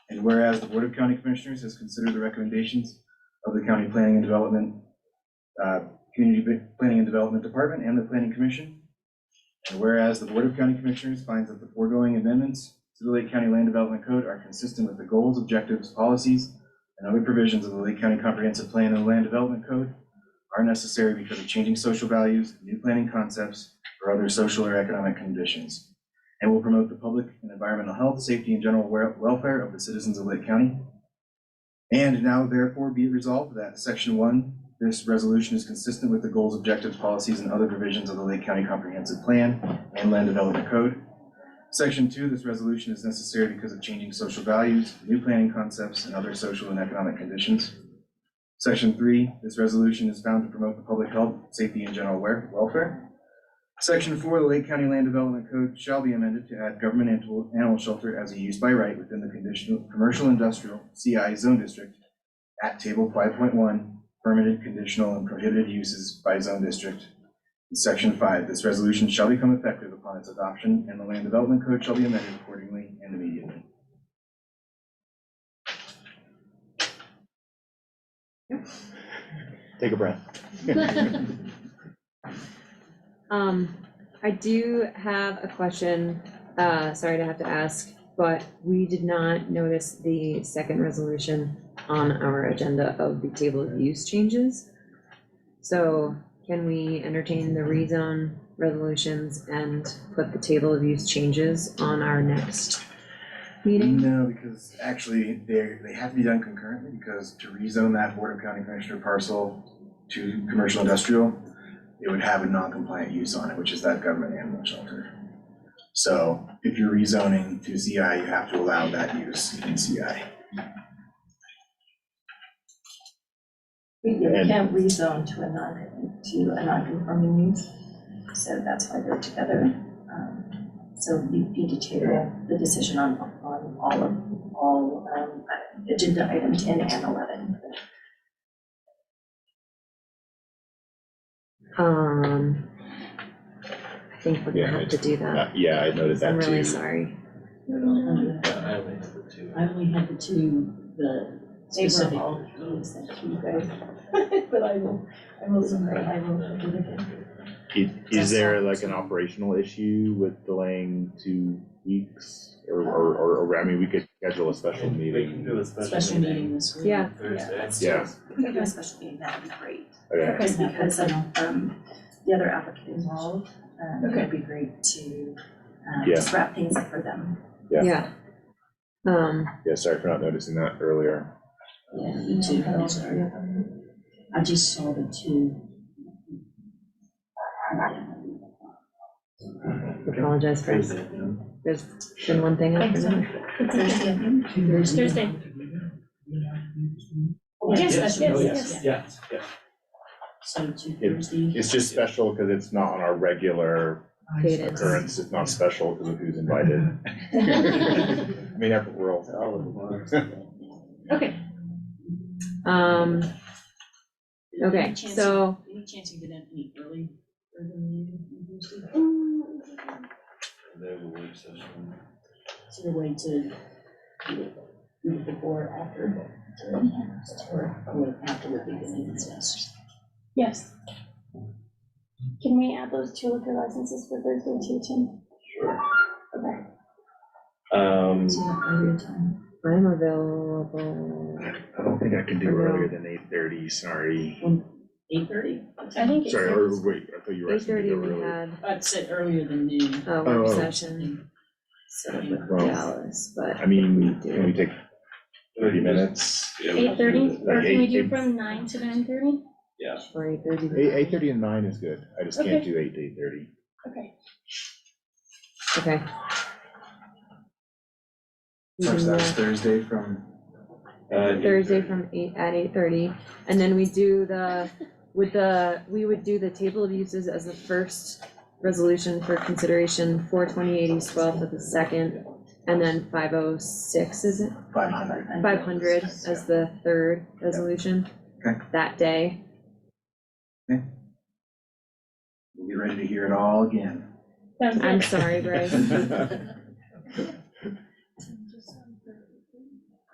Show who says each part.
Speaker 1: And whereas the Board of County Commissioners has considered the recommendations of the County Planning and Development, uh, Community Ba- Planning and Development Department and the Planning Commission. And whereas the Board of County Commissioners finds that the foregoing amendments to the Lake County Land Development Code are consistent with the goals, objectives, policies, and other provisions of the Lake County Comprehensive Plan and Land Development Code are necessary because of changing social values, new planning concepts, or other social or economic conditions and will promote the public and environmental health, safety, and general wel- welfare of the citizens of Lake County. And now therefore be it resolved that section one, this resolution is consistent with the goals, objectives, policies, and other provisions of the Lake County Comprehensive Plan and Land Development Code. Section two, this resolution is necessary because of changing social values, new planning concepts, and other social and economic conditions. Section three, this resolution is found to promote the public health, safety, and general wer- welfare. Section four, the Lake County Land Development Code shall be amended to add government animal, animal shelter as a use by right within the conditional, commercial industrial CI zone district at table five point one, permitted, conditional, and prohibited uses by zone district. And Section five, this resolution shall become effective upon its adoption, and the Land Development Code shall be amended accordingly and immediately.
Speaker 2: Take a breath.
Speaker 3: Um, I do have a question, uh, sorry to have to ask, but we did not notice the second resolution on our agenda of the table of use changes. So can we entertain the rezone resolutions and put the table of use changes on our next meeting?
Speaker 1: No, because actually, they're, they have to be done concurrently, because to rezone that Board of County Commissioner parcel to commercial industrial, it would have a non-compliant use on it, which is that government animal shelter. So if you're rezoning to CI, you have to allow that use in CI.
Speaker 4: You
Speaker 2: And-
Speaker 4: can't rezone to a non, to a non-conforming use, so that's why they're together. Um, So you need to table the decision on, on all of, all, um, agenda item ten and eleven.
Speaker 3: Um, I think we're
Speaker 2: Yeah,
Speaker 3: gonna have to do
Speaker 2: Uh,
Speaker 3: that.
Speaker 2: Yeah, I noted
Speaker 3: I'm
Speaker 2: that
Speaker 3: really
Speaker 2: too.
Speaker 3: sorry.
Speaker 5: I only have the two.
Speaker 4: I only had the two, the
Speaker 5: specific-
Speaker 4: all things that you guys, but I will, I will, submit, I will. do it again.
Speaker 2: Is- Is
Speaker 3: That's
Speaker 2: there
Speaker 3: all.
Speaker 2: like an operational issue with delaying two weeks? Or, or, or, or, I mean, we could schedule a special
Speaker 5: We
Speaker 2: meeting.
Speaker 5: can do a
Speaker 4: Special meeting this week.
Speaker 3: Yeah.
Speaker 5: Thursday.
Speaker 4: let's do it.
Speaker 2: Yeah,
Speaker 4: If we could do a special meeting, that would be great.
Speaker 2: okay.
Speaker 4: Because because of, um, the other applicant involved, um, it would be great to, um,
Speaker 2: Yeah.
Speaker 4: just wrap things up for them.
Speaker 2: Yeah.
Speaker 3: Yeah. Um,
Speaker 2: Yeah, sorry for not noticing that earlier.
Speaker 6: Yeah, me too, I'm sorry. I just saw the two.
Speaker 3: apologize for,
Speaker 5: Thursday, yeah.
Speaker 3: there's been one thing after another.
Speaker 6: Thursday. Yes, yes,
Speaker 5: oh,
Speaker 6: yes, yes.
Speaker 5: Yes, yes.
Speaker 6: So two
Speaker 2: It-
Speaker 6: Thursday.
Speaker 2: It's just special because it's not on our regular
Speaker 3: Cadence.
Speaker 2: occurrence. It's not special because of who's invited.
Speaker 3: Mm-hmm.
Speaker 2: I mean, after we're all,
Speaker 5: All of them.
Speaker 3: Okay. Um, okay,
Speaker 6: Any chance-
Speaker 3: so,
Speaker 6: Any chance you get in any early, early meeting on Thursday?
Speaker 5: And then we'll work session.
Speaker 6: Is there a way to do it do it before, or after? Or, or after would be good, it's best.
Speaker 7: Yes. Can we add those two liquor licenses for Thursday too, Tim?
Speaker 5: Sure.
Speaker 7: Okay.
Speaker 5: Um,
Speaker 6: Is there an earlier time?
Speaker 3: I'm available,
Speaker 2: I don't think I can do earlier than eight thirty, sorry.
Speaker 6: Eight thirty?
Speaker 7: I think it's.
Speaker 2: Sorry, or wait, I thought you were
Speaker 3: eight
Speaker 2: asking me to
Speaker 3: thirty
Speaker 2: go
Speaker 3: we
Speaker 2: earlier.
Speaker 3: had
Speaker 6: I'd say Uh, earlier than noon.
Speaker 3: a
Speaker 2: Oh,
Speaker 3: work
Speaker 2: oh.
Speaker 3: session
Speaker 6: So, yeah.
Speaker 2: Well,
Speaker 3: Dallas, but
Speaker 2: I mean, can we take thirty minutes?
Speaker 5: yeah, we
Speaker 7: Eight
Speaker 5: can
Speaker 7: thirty,
Speaker 5: do
Speaker 7: or
Speaker 2: Like
Speaker 7: can we
Speaker 2: eight-
Speaker 7: do
Speaker 2: eight-
Speaker 7: from nine to nine thirty?
Speaker 3: for eight thirty.
Speaker 2: Eight, eight thirty and nine is good. I just can't
Speaker 7: Okay.
Speaker 2: do eight to eight thirty.
Speaker 7: Okay.
Speaker 3: Okay. We
Speaker 1: Such
Speaker 3: can,
Speaker 1: that was
Speaker 3: uh,
Speaker 1: Thursday from,
Speaker 5: that. Uh, eight
Speaker 3: Thursday
Speaker 5: thirty.
Speaker 3: from eight, at eight thirty, and then we do the, with the, we would do the table of uses as the first resolution for consideration, four twenty eight East Twelfth as the second, and then five oh six is it,
Speaker 1: five hundred.
Speaker 4: oh
Speaker 3: five hundred as the third resolution
Speaker 1: Okay.
Speaker 3: that day.
Speaker 1: We'll be ready to hear it all again.
Speaker 7: Sounds
Speaker 3: I'm
Speaker 7: good.
Speaker 3: sorry, Bryce.
Speaker 2: All